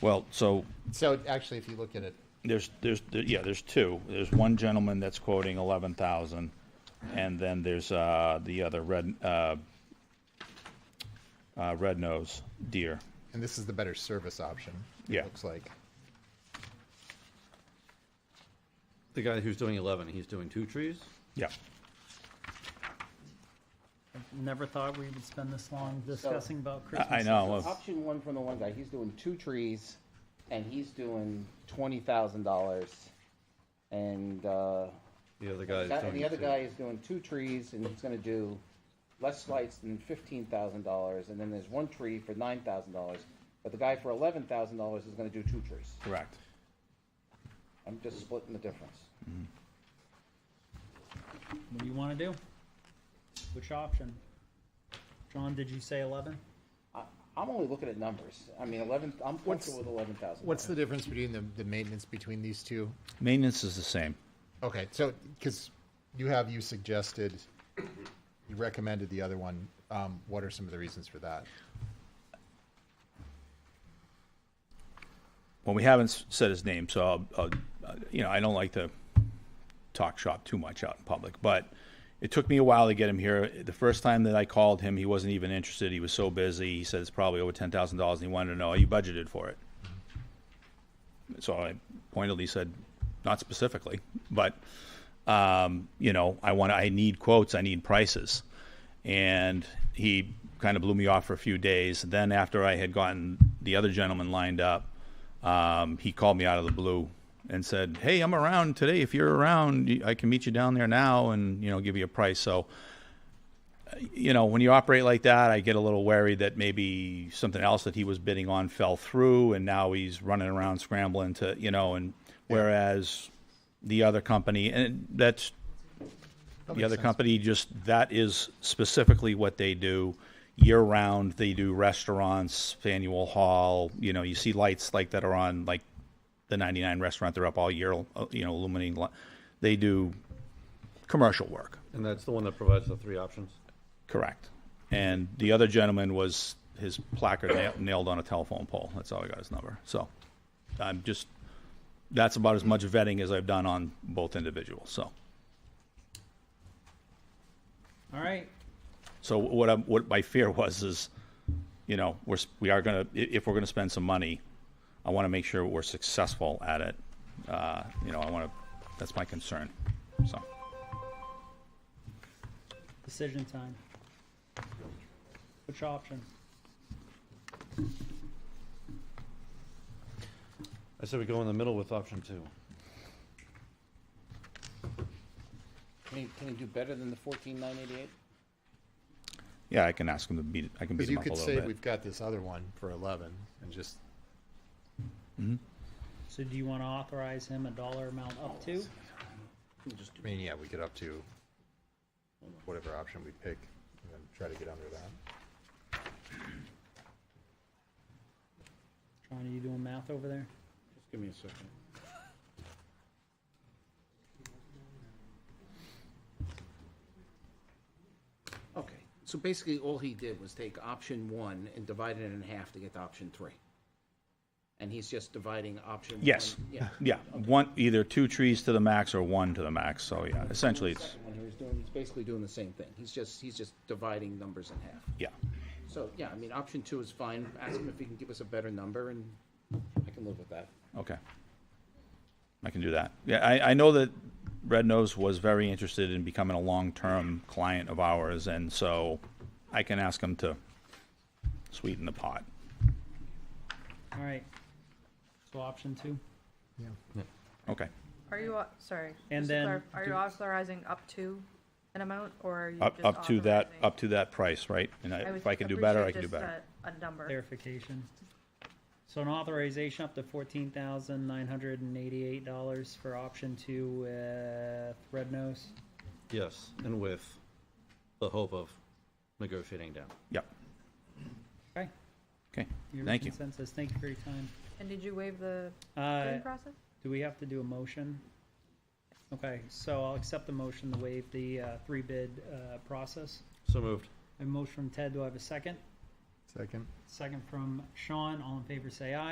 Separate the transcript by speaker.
Speaker 1: Well, so
Speaker 2: So actually, if you look at it,
Speaker 1: there's, there's, yeah, there's two. There's one gentleman that's quoting eleven thousand, and then there's, uh, the other red, uh, uh, red nose deer.
Speaker 2: and this is the better service option,
Speaker 1: Yeah.
Speaker 2: it looks like.
Speaker 3: The guy who's doing eleven, he's doing two trees?
Speaker 1: Yeah.
Speaker 4: Never thought we would spend this long discussing about Christmas.
Speaker 1: I know.
Speaker 5: Option one from the one guy, he's doing two trees, and he's doing twenty thousand dollars, and uh,
Speaker 3: The other guy is
Speaker 5: that- and
Speaker 3: doing
Speaker 5: the other
Speaker 3: two.
Speaker 5: guy is doing two trees, and he's gonna do less lights than fifteen thousand dollars, and then there's one tree for nine thousand dollars, but the guy for eleven thousand dollars is gonna do two trees.
Speaker 1: Correct.
Speaker 5: I'm just splitting the difference.
Speaker 4: What do you want to do? Which option? John, did you say 11?
Speaker 5: I, I'm only looking at numbers. I mean, eleven. I'm
Speaker 2: What's-
Speaker 5: comfortable with eleven thousand.
Speaker 2: What's the difference between the, the maintenance between these two?
Speaker 1: Maintenance is the same.
Speaker 2: Okay, so, because you have, you suggested, you recommended the other one. Um, what are some of the reasons for that?
Speaker 1: Well, we haven't s- said his name, so I'll, I'll, uh, you know, I don't like to talk shop too much out in public. But it took me a while to get him here. The first time that I called him, he wasn't even interested. He was so busy. He said it's probably over ten thousand dollars, and he wanted to know are you budgeted for it. So I pointedly said, not specifically, but um, you know, I want, I need quotes, I need prices. And he kind of blew me off for a few days. Then after I had gotten the other gentleman lined up, um, he called me out of the blue and said, "Hey, I'm around today. If you're around, y- I can meet you down there now and you know give you a price." So, uh, you know, when you operate like that, I get a little wary that maybe something else that he was bidding on fell through, and now he's running around scrambling to you know. And whereas the other company, and that's the other company just, that is specifically what they do. Year-round, they do restaurants, annual hall, you know, you see lights like that are on, like the 99 restaurant, they're up all year, uh, you know, illuminating. li- They do commercial work,
Speaker 3: And that's the one that provides the three options?
Speaker 1: correct. And the other gentleman was, his placard na- nailed on a telephone pole. That's how I got his number. So I'm just, that's about as much vetting as I've done on both individuals, so.
Speaker 4: All right.
Speaker 1: So what I, what my fear was is, you know, we're, s- we are gonna, i- if we're gonna spend some money, I wanna make sure we're successful at it. Uh, you know, I wanna, that's my concern, so.
Speaker 4: Decision time. Which option?
Speaker 3: I said we go in the middle with option two.
Speaker 5: Can he, can he do better than the fourteen nine eighty eight?
Speaker 1: Yeah, I can ask him to beat, I can beat
Speaker 2: Because
Speaker 1: him
Speaker 2: you
Speaker 1: up a
Speaker 2: could
Speaker 1: little
Speaker 2: say
Speaker 1: bit.
Speaker 2: we've got this other one for eleven and just,
Speaker 4: So do you want to authorize him a dollar amount up to?
Speaker 2: I mean, yeah, we get up to whatever option we pick and then try to get under that.
Speaker 4: John, are you doing math over there?
Speaker 6: Just give me a second.
Speaker 5: Okay, so basically all he did was take option one and divide it in half to get to option three. And he's just dividing option.
Speaker 1: Yes,
Speaker 5: one- Yeah.
Speaker 1: yeah, one, either two trees to the max or one to the max, so yeah, essentially it's,
Speaker 5: When he was doing, he's basically doing the same thing. He's just, he's just dividing numbers in half.
Speaker 1: yeah.
Speaker 5: So, yeah, I mean, option two is fine. Ask him if he can give us a better number and I can live with that.
Speaker 1: Okay. I can do that. Yeah, I, I know that Red Nose was very interested in becoming a long-term client of ours, and so I can ask him to sweeten the pot.
Speaker 4: All right. So option two.
Speaker 1: Okay.
Speaker 7: Are you, au- sorry.
Speaker 4: And
Speaker 7: just to
Speaker 4: then
Speaker 7: clarif- Are
Speaker 4: do-
Speaker 7: you authorizing up to an amount, or are you
Speaker 1: Up,
Speaker 7: just
Speaker 1: up to that,
Speaker 7: authorizing-
Speaker 1: up to that price, right? And I-
Speaker 7: would
Speaker 1: if I can do better, I
Speaker 7: appreciate
Speaker 1: can do
Speaker 7: just
Speaker 1: better.
Speaker 7: A a number.
Speaker 4: Clarification. So an authorization up to fourteen thousand nine hundred and eighty-eight dollars for option two with Red Nose.
Speaker 3: Yes, and with the hope of negotiating down.
Speaker 1: Yep.
Speaker 4: Okay.
Speaker 1: Okay.
Speaker 4: Your
Speaker 1: Thank you.
Speaker 4: Consensus. Thank you for your time.
Speaker 7: And did you waive the
Speaker 4: Uh,
Speaker 7: bidding process?
Speaker 4: Do we have to do a motion? Okay, so I'll accept the motion to waive the uh, three bid uh, process.
Speaker 3: So moved.
Speaker 4: A motion from Ted, do I have a second?
Speaker 2: Second.
Speaker 4: Second from Sean, all in favor say aye.